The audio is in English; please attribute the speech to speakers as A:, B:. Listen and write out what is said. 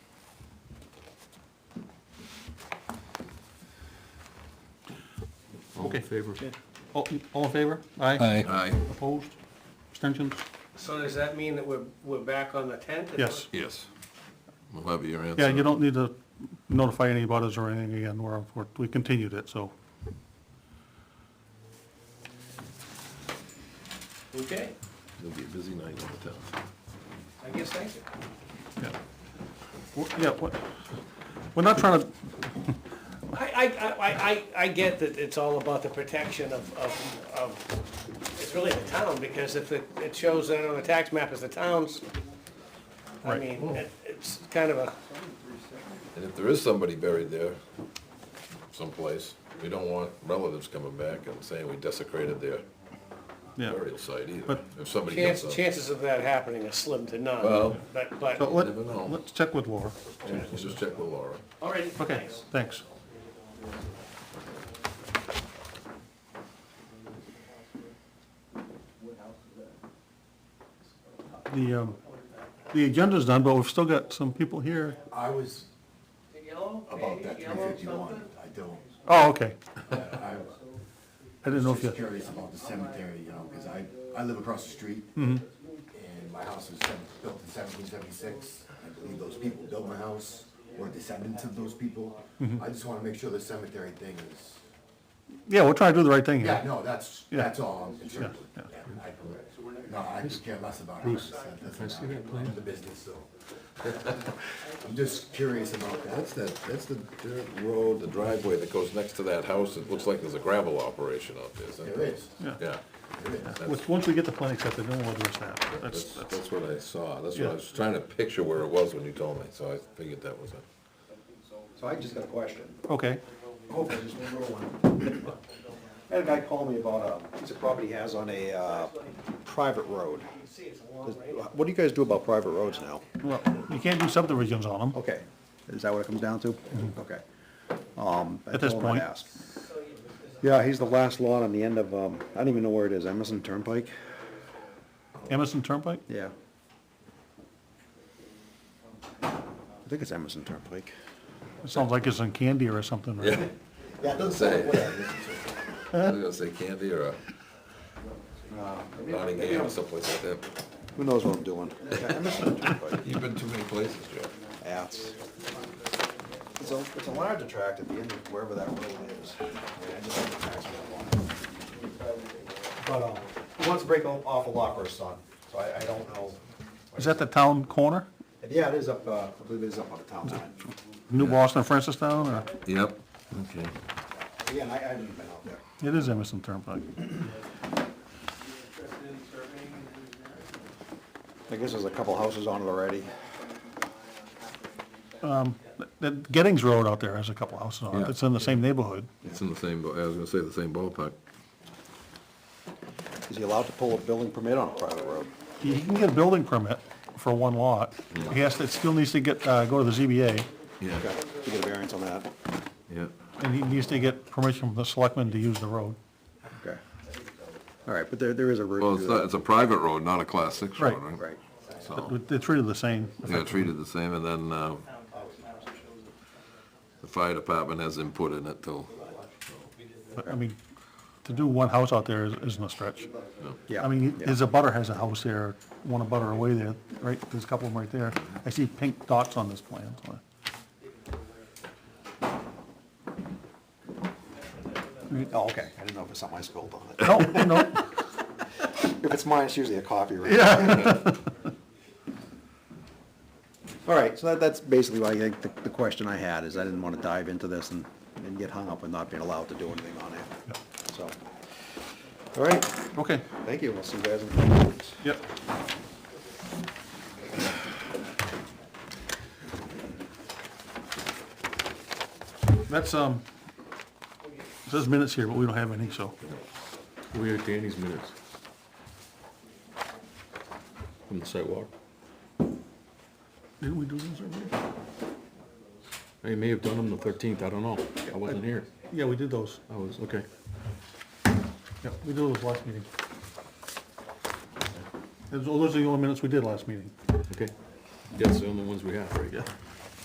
A: Okay. favor. All all in favor? Aye.
B: Aye.
C: Aye,
A: Opposed? Abstentions?
D: So does that mean that we're, we're back on the tenth?
A: Yes.
C: yes. We'll have your answer.
A: Yeah, you don't need to notify any butters or anything again, we're, we're- we continued it, so.
D: Okay,
C: It'll be a busy night on the tenth.
D: I guess that's it.
A: Yeah, Well, yeah. what- we're not trying to,
D: I, I, I, I, I get that it's all about the protection of, of, of, it's really the town, because if it, it shows that on the tax map as the town's, I
A: Right.
D: mean, it- it's kind of a,
C: And if there is somebody buried there someplace, we don't want relatives coming back and saying we desecrated their
A: yeah.
C: burial site either.
A: But-
C: If somebody
D: chance,
C: gets up,
D: chances of that happening are slim to none,
C: Well-
D: but, but.
A: So let,
C: Never know.
A: let's check with Laura.
C: we'll just check with Laura.
D: All right,
A: Okay, thanks. The, um, the agenda's done, but we've still got some people here.
E: I was about that three fifty-one, I don't,
A: Oh, okay.
E: I
A: I didn't know
E: was
A: if you,
E: just curious about the cemetery, you know, because I, I live across the street.
A: Mm-hmm.
E: And my house was sev- built in seventeen seventy-six, I believe those people built my house, or descendants of those people.
A: Mm-hmm.
E: I just wanna make sure the cemetery thing is,
A: yeah, we're trying to do the right thing
E: yeah,
A: here.
E: no, that's,
A: Yeah.
E: that's all I'm concerned with.
A: Yeah,
E: Yeah, I- No, I could care less about it, that doesn't matter, I'm the business, so. I'm just curious about that.
C: That's that, that's the dirt road, the driveway that goes next to that house. It looks like there's a gravel operation out there, isn't
E: There is,
A: Yeah.
C: Yeah.
E: there is.
C: that's-
A: Which, once we get the plan accepted, then we'll address that. That's,
C: That's,
A: that's,
C: that's what I saw. That's what
A: Yeah.
C: I was trying to picture where it was when you told me, so I figured that was it.
F: So I just got a question.
A: okay,
F: Hopefully, just one little one. I had a guy call me about um, a piece of property he has on a uh, private road. Does- What do you guys do about private roads now?
A: well, you can't do subdivisions on them.
F: Okay, is that what it comes down to? Okay. Mm-hmm. Um, I
A: At this
F: told him I'd
A: point.
F: ask. Yeah, he's the last lot on the end of, um, I don't even know where it is, Emerson Turnpike?
A: Emerson Turnpike?
F: Yeah. I think it's Emerson Turnpike.
A: It sounds like it's in Candy or something, right?
C: Yeah.
F: Yeah,
C: Doesn't say. I was gonna say Candy or uh, Nottingham or someplace like that.
F: Who knows what I'm doing? Yeah, Emerson Turnpike.
C: You've been too many places, Joe.
F: Yeah, it's, it's a, it's a large tract at the end of wherever that road is. I mean, I just have the tax map on it. But, um, he wants to break o- off a lot for his son, so I, I don't know.
A: Is that the town corner?
F: Yeah, it is up, uh, I believe it is up on the town line.
A: New Boston, Francistown, or?
C: Yep. Okay.
F: Again, I, I haven't been out there.
A: It is Emerson Turnpike.
F: I guess there's a couple houses on it already.
A: That Gettings Road out there has a couple houses on it.
C: Yeah.
A: It's in the same neighborhood.
C: It's in the same, ba- I was gonna say the same ballpark.
F: Is he allowed to pull a building permit on a private road?
A: He can get a building permit for one lot. He has, to- it still needs to get, uh, go to the ZBA,
C: Yeah,
F: Okay, to get a variance on that,
C: yeah.
A: and he needs to get permission from the selectmen to use the road.
F: okay. All right, but there, there is a route.
C: Well, it's, not- it's a private road, not a class six road,
A: Right.
C: right?
F: Right.
C: So,
A: But They're treated the same.
C: yeah, treated the same, and then, uh, the fire department has input in it till,
A: But, I mean, to do one house out there is- isn't a stretch.
F: Yeah.
A: I mean,
F: yeah.
A: there's a butter has a house there, one a butter away there, right? There's a couple of them right there. I see pink dots on this plan. so.
F: Oh, okay, I didn't know if it's something I spilled on it.
A: No, no,
F: If it's mine, it's usually a coffee, right?
A: yeah.
F: All right, so that, that's basically why I think the, the question I had is I didn't want to dive into this and, and get hung up with not being allowed to do anything on it. So, all right,
A: Okay,
F: thank you. We'll see you guys in a couple weeks.
A: yep. That's, um, it says minutes here, but we don't have any, so.
C: We are Danny's minutes. From the sidewalk?
A: Didn't we do those already?
G: You may have done them the thirteenth, I don't know. I wasn't here.
A: Yeah, we did those.
G: I was, okay.
A: Yeah, we did those last meeting. oh, Those those are the only minutes we did last meeting.
G: Okay. That's the only ones we have, right? Yeah.